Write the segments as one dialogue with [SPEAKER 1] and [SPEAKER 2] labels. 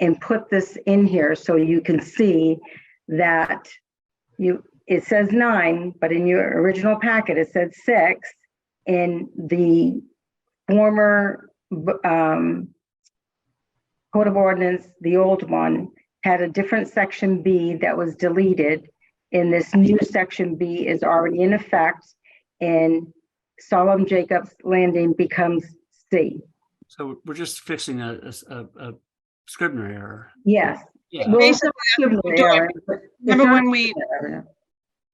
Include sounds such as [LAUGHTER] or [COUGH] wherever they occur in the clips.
[SPEAKER 1] and put this in here so you can see that you, it says nine, but in your original packet, it said six. And the former, b- um, code of ordinance, the old one, had a different section B that was deleted. And this new section B is already in effect and Solomon Jacobs Landing becomes C.
[SPEAKER 2] So we're just fixing a, a s- a- a Scribner error.
[SPEAKER 1] Yes.
[SPEAKER 2] Yeah.
[SPEAKER 1] Well,
[SPEAKER 3] Basically,
[SPEAKER 1] Scrivener
[SPEAKER 3] we do it-
[SPEAKER 1] error, but it's
[SPEAKER 3] remember
[SPEAKER 1] not
[SPEAKER 3] when we,
[SPEAKER 1] Scrivener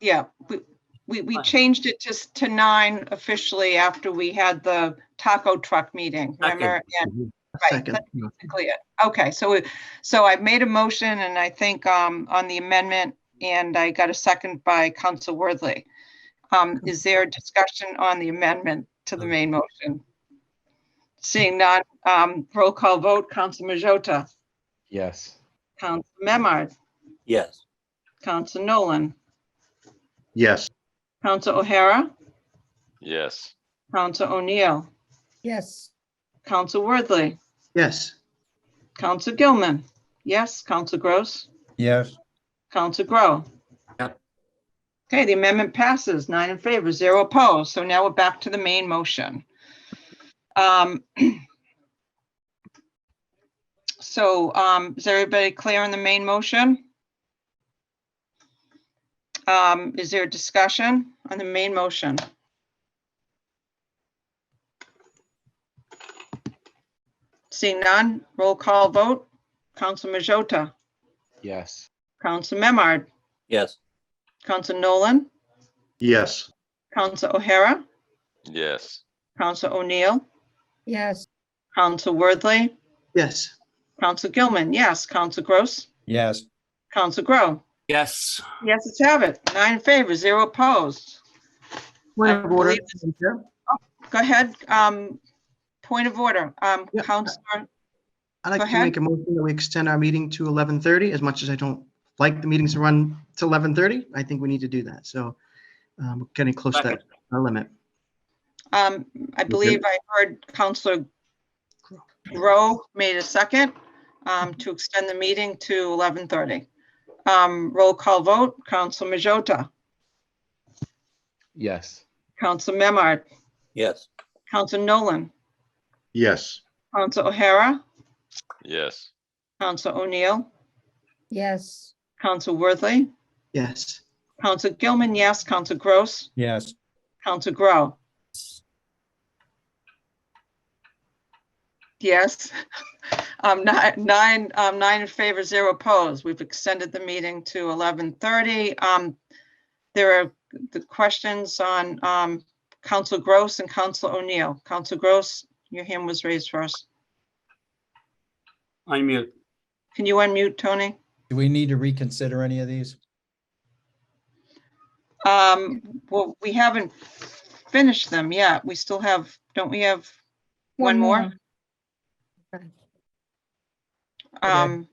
[SPEAKER 3] yeah, we, we, we
[SPEAKER 2] Fine.
[SPEAKER 3] changed it to, to nine officially after we had the taco truck meeting,
[SPEAKER 2] Second.
[SPEAKER 3] remember? And Right,
[SPEAKER 4] Second,
[SPEAKER 3] that's basically it. Okay, so, it- so I made a motion and I think um, on the amendment and I got a second by Council Worthley. Um, Is there a discussion on the amendment to the main motion? Seeing none, um, roll call vote, Council Majota,
[SPEAKER 5] Yes.
[SPEAKER 3] Council Memard,
[SPEAKER 2] Yes.
[SPEAKER 3] Council Nolan,
[SPEAKER 4] yes,
[SPEAKER 3] Council O'Hara,
[SPEAKER 6] yes,
[SPEAKER 3] Council O'Neill,
[SPEAKER 7] yes,
[SPEAKER 3] Council Worthley,
[SPEAKER 4] yes,
[SPEAKER 3] Council Gilman, yes, Council Gross,
[SPEAKER 7] yes,
[SPEAKER 3] Council Grow.
[SPEAKER 2] Yep.
[SPEAKER 3] Okay, the amendment passes, nine in favor, zero opposed. So now we're back to the main motion. Um, [CLEARS THROAT] So um, is everybody clear on the main motion? Um, Is there a discussion on the main motion? Seeing none, roll call vote. Council Majota,
[SPEAKER 5] Yes.
[SPEAKER 3] Council Memard,
[SPEAKER 2] Yes.
[SPEAKER 3] Council Nolan,
[SPEAKER 4] yes,
[SPEAKER 3] Council O'Hara,
[SPEAKER 6] yes,
[SPEAKER 3] Council O'Neill,
[SPEAKER 7] yes,
[SPEAKER 3] Council Worthley,
[SPEAKER 4] yes,
[SPEAKER 3] Council Gilman, yes, Council Gross,
[SPEAKER 7] yes,
[SPEAKER 3] Council Grow.
[SPEAKER 2] Yes.
[SPEAKER 3] Yes, let's have it. Nine in favor, zero opposed.
[SPEAKER 4] point of order.
[SPEAKER 3] believe Go ahead, um, point of order, um,
[SPEAKER 4] Yeah.
[SPEAKER 3] Counselor,
[SPEAKER 4] I'd
[SPEAKER 3] Go
[SPEAKER 4] like to
[SPEAKER 3] ahead.
[SPEAKER 4] make a motion that we extend our meeting to eleven thirty, as much as I don't like the meetings to run to eleven thirty, I think we need to do that, so um, we're getting close to that our limit.
[SPEAKER 3] um, I believe I heard Councilor Grow made a second, um, to extend the meeting to eleven thirty. Um, roll call vote, Council Majota,
[SPEAKER 5] Yes.
[SPEAKER 3] Council Memard,
[SPEAKER 2] Yes.
[SPEAKER 3] Council Nolan,
[SPEAKER 4] Yes.
[SPEAKER 3] Council O'Hara,
[SPEAKER 6] yes,
[SPEAKER 3] Council O'Neill,
[SPEAKER 7] yes,
[SPEAKER 3] Council Worthley,
[SPEAKER 4] Yes,
[SPEAKER 3] Council Gilman, yes, Council Gross,
[SPEAKER 7] yes,
[SPEAKER 3] Council Grow. Yes, [LAUGHS] um, nine, nine, um, nine in favor, zero opposed. We've extended the meeting to eleven thirty. Um, there are the questions on, um, Council Gross and Council O'Neill. Council Gross, your hand was raised first.
[SPEAKER 2] I mute.
[SPEAKER 3] Can you unmute, Tony?
[SPEAKER 7] do we need to reconsider any of these?
[SPEAKER 3] Um, well, we haven't finished them yet. We still have, don't we have one
[SPEAKER 7] One
[SPEAKER 3] more?
[SPEAKER 7] Okay. Okay.
[SPEAKER 3] Um,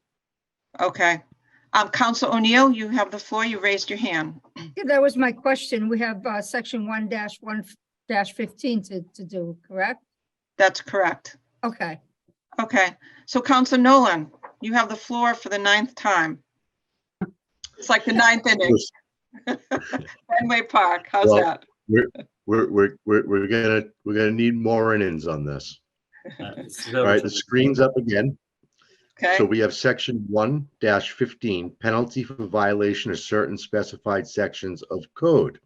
[SPEAKER 3] okay. Um, Council O'Neill, you have the floor. You raised your hand.
[SPEAKER 8] Yeah, That was my question. We have uh, section one dash one dash fifteen to, to do, correct?
[SPEAKER 3] That's correct.
[SPEAKER 8] Okay,
[SPEAKER 3] Okay. So Council Nolan, you have the floor for the ninth time. It's like the ninth inning. Fenway Park, how's
[SPEAKER 9] Well-
[SPEAKER 3] that?
[SPEAKER 9] We're, we're, we're, we're gonna, we're gonna need more in-ins on this. All right, the screen's up again. So
[SPEAKER 3] Okay,
[SPEAKER 9] we have section one dash fifteen, penalty for violation of certain specified sections of code.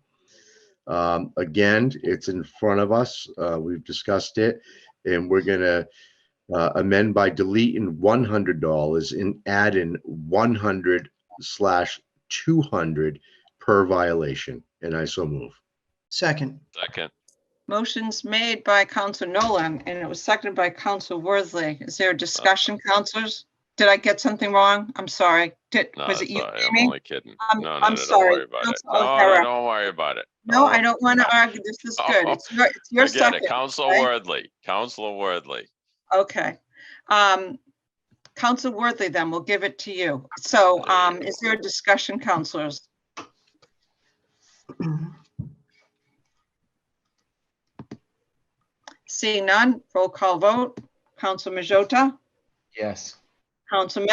[SPEAKER 9] Um, again, it's in front of us. Uh, we've discussed it and we're gonna uh, amend by deleting one hundred dollars and add in one hundred slash two hundred per violation. And I so move.
[SPEAKER 4] second, [CLEARS THROAT]
[SPEAKER 6] second,
[SPEAKER 3] motion's made by Council Nolan and it was seconded by Council Worthley. Is there a discussion, councilors? Did I get something wrong? I'm sorry. Did,
[SPEAKER 6] no,
[SPEAKER 3] was it
[SPEAKER 6] it's
[SPEAKER 3] you,
[SPEAKER 6] all right, I'm
[SPEAKER 3] Amy?
[SPEAKER 6] only kidding.
[SPEAKER 3] I'm-
[SPEAKER 6] No, no,
[SPEAKER 3] I'm
[SPEAKER 6] no, don't
[SPEAKER 3] sorry,
[SPEAKER 6] worry about it.
[SPEAKER 3] Council
[SPEAKER 6] No,
[SPEAKER 3] O'Hara.
[SPEAKER 6] no, don't worry about it.
[SPEAKER 3] No, I
[SPEAKER 6] Oh,
[SPEAKER 3] don't want
[SPEAKER 6] no.
[SPEAKER 3] to argue. This is good. It's your, it's your
[SPEAKER 6] I get it,
[SPEAKER 3] second.
[SPEAKER 6] Counselor
[SPEAKER 3] right?
[SPEAKER 6] Worthley, Counselor Worthley.
[SPEAKER 3] Okay. Um, Council Worthy, then we'll give it to you. So, um, is there a discussion, counselors? Seeing none, roll call vote. Council Majota,
[SPEAKER 5] Yes.
[SPEAKER 3] Council Memard.